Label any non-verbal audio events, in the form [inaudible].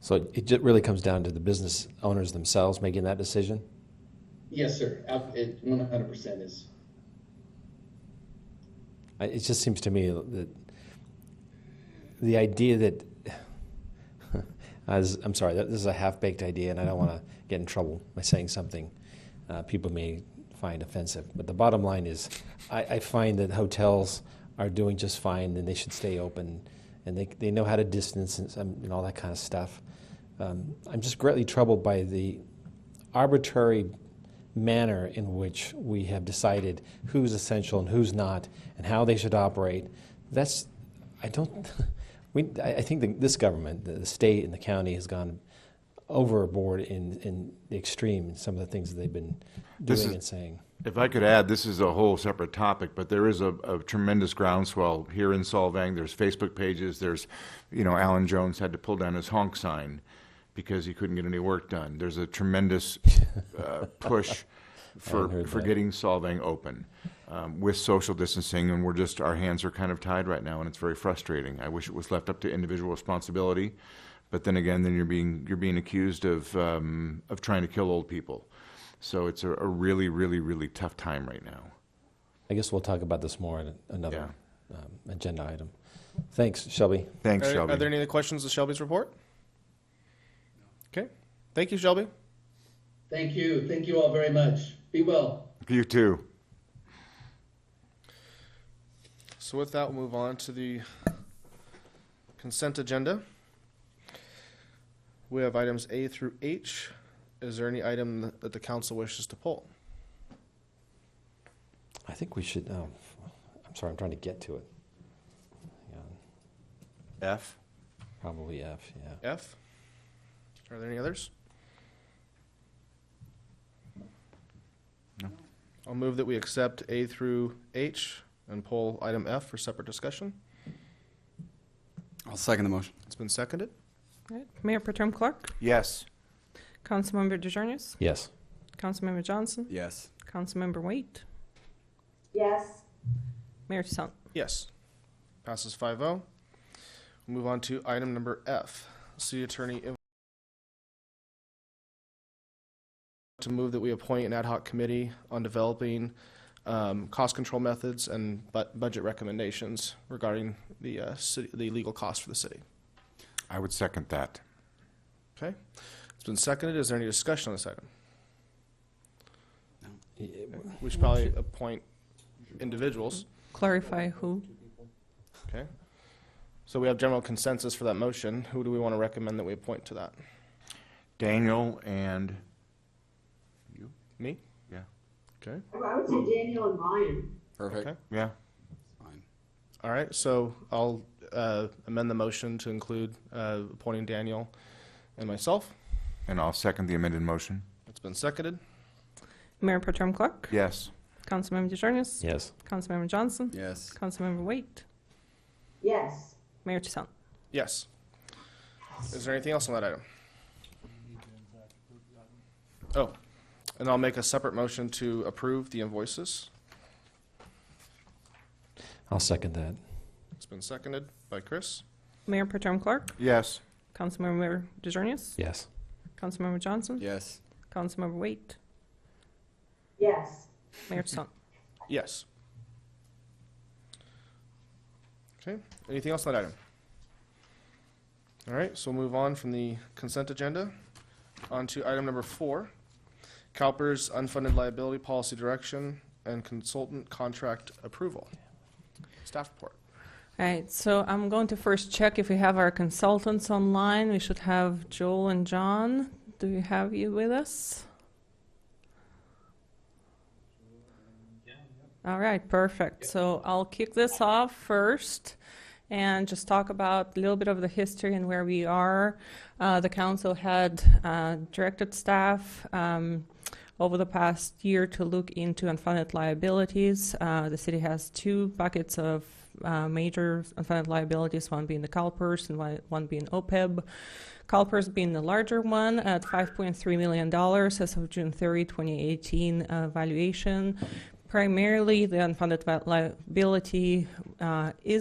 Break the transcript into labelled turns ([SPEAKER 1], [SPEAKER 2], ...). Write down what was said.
[SPEAKER 1] So it- it ju- really comes down to the business owners themselves making that decision?
[SPEAKER 2] Yes, sir. Ab- It one hundred percent is.
[SPEAKER 1] I- It just seems to me that the idea that, [laughs] I was, I'm sorry, that this is a half-baked idea, and I don't want to get in trouble by saying something uh, people may find offensive. But the bottom line is, I, I find that hotels are doing just fine, and they should stay open, and they, they know how to distance and, some- and all that kind of stuff. Um, I'm just greatly troubled by the arbitrary manner in which we have decided who's essential and who's not and how they should operate. That's, I don't, [laughs] we, I I think the, this government, the, the state and the county has gone overboard in, in the extreme in some of the things that they've been
[SPEAKER 3] This
[SPEAKER 1] doing
[SPEAKER 3] is-
[SPEAKER 1] and saying.
[SPEAKER 3] If I could add, this is a whole separate topic, but there is a, a tremendous groundswell here in Solvang. There's Facebook pages. There's, you know, Alan Jones had to pull down his honk sign because he couldn't get any work done. There's a tremendous uh,
[SPEAKER 1] [laughs]
[SPEAKER 3] push for
[SPEAKER 1] heard
[SPEAKER 3] for
[SPEAKER 1] that.
[SPEAKER 3] getting Solvang open um, with social distancing, and we're just our hands are kind of tied right now, and it's very frustrating. I wish it was left up to individual responsibility, but then again, then you're being you're being accused of um, of trying to kill old people. So it's a, a really, really, really tough time right now.
[SPEAKER 1] I guess we'll talk about this more in another um, agenda item. Thanks, Shelby.
[SPEAKER 3] Thanks,
[SPEAKER 4] Are,
[SPEAKER 3] Shelby.
[SPEAKER 4] are there any other questions to Shelby's report? Okay. Thank you, Shelby.
[SPEAKER 2] Thank you. Thank you all very much. Be well.
[SPEAKER 3] you too.
[SPEAKER 4] So with that, we'll move on to the consent agenda. We have items A through H. Is there any item that the council wishes to pull?
[SPEAKER 1] I think we should, um, I'm sorry, I'm trying to get to it. Hang on.
[SPEAKER 3] F.
[SPEAKER 1] Probably F, yeah.
[SPEAKER 4] F? Are there any others?
[SPEAKER 3] No.
[SPEAKER 4] I'll move that we accept A through H and pull item F for separate discussion.
[SPEAKER 5] I'll second the motion.
[SPEAKER 4] It's been seconded.
[SPEAKER 6] All right. Mayor Protem Clark,
[SPEAKER 3] Yes.
[SPEAKER 6] Councilmember DeJarnis,
[SPEAKER 1] Yes.
[SPEAKER 6] Councilmember Johnson,
[SPEAKER 5] Yes.
[SPEAKER 6] Councilmember Waite,
[SPEAKER 7] yes,
[SPEAKER 6] Mayor Tushant.
[SPEAKER 4] Yes. Passes 5 0. Move on to item number F. City Attorney. Im- To move that we appoint an ad hoc committee on developing um, cost control methods and bu- budget recommendations regarding the, uh, city, the legal costs for the city.
[SPEAKER 3] I would second that.
[SPEAKER 4] Okay? It's been seconded. Is there any discussion on this item? We should probably appoint individuals.
[SPEAKER 6] Clarify who.
[SPEAKER 4] Okay. So we have general consensus for that motion. Who do we want to recommend that we appoint to that?
[SPEAKER 3] Daniel and you.
[SPEAKER 4] Me?
[SPEAKER 3] Yeah.
[SPEAKER 4] Okay.
[SPEAKER 7] I would say Daniel and Ryan.
[SPEAKER 5] Perfect.
[SPEAKER 4] Okay.
[SPEAKER 3] Yeah.
[SPEAKER 5] Fine.
[SPEAKER 4] All right. So I'll uh, amend the motion to include uh, appointing Daniel and myself.
[SPEAKER 3] And I'll second the amended motion.
[SPEAKER 4] It's been seconded.
[SPEAKER 6] Mayor Protem Clark,
[SPEAKER 3] Yes.
[SPEAKER 6] Councilmember DeJarnis,
[SPEAKER 1] Yes.
[SPEAKER 6] Councilmember Johnson,
[SPEAKER 5] Yes.
[SPEAKER 6] Councilmember Waite,
[SPEAKER 7] Yes,
[SPEAKER 6] Mayor Tushant.
[SPEAKER 4] Yes. Is there anything else on that item? Oh, and I'll make a separate motion to approve the invoices.
[SPEAKER 1] I'll second that.
[SPEAKER 4] It's been seconded by Chris.
[SPEAKER 6] Mayor Protem Clark,
[SPEAKER 3] Yes.
[SPEAKER 6] Councilmember DeJarnis,
[SPEAKER 1] Yes.
[SPEAKER 6] Councilmember Johnson,
[SPEAKER 5] Yes.
[SPEAKER 6] Councilmember Waite,
[SPEAKER 7] yes,
[SPEAKER 6] Mayor Tushant.
[SPEAKER 4] Yes. Okay, anything else on that item? All right, so we'll move on from the consent agenda on to item number four, CalPERS unfunded liability policy direction and consultant contract approval. Staff report.
[SPEAKER 6] All right, so I'm going to first check if we have our consultants online. We should have Joel and John. Do we have you with us? All right, perfect. So I'll kick this off first and just talk about a little bit of the history and where we are. Uh, the council had uh, directed staff um, over the past year to look into unfunded liabilities. Uh, the city has two buckets of uh, major unfunded liabilities, one being the CalPERS and one, one being OPEB. CalPERS being the larger one at $5.3 million as of June 30, 2018 uh, valuation. Primarily, the unfunded vi- liability uh, is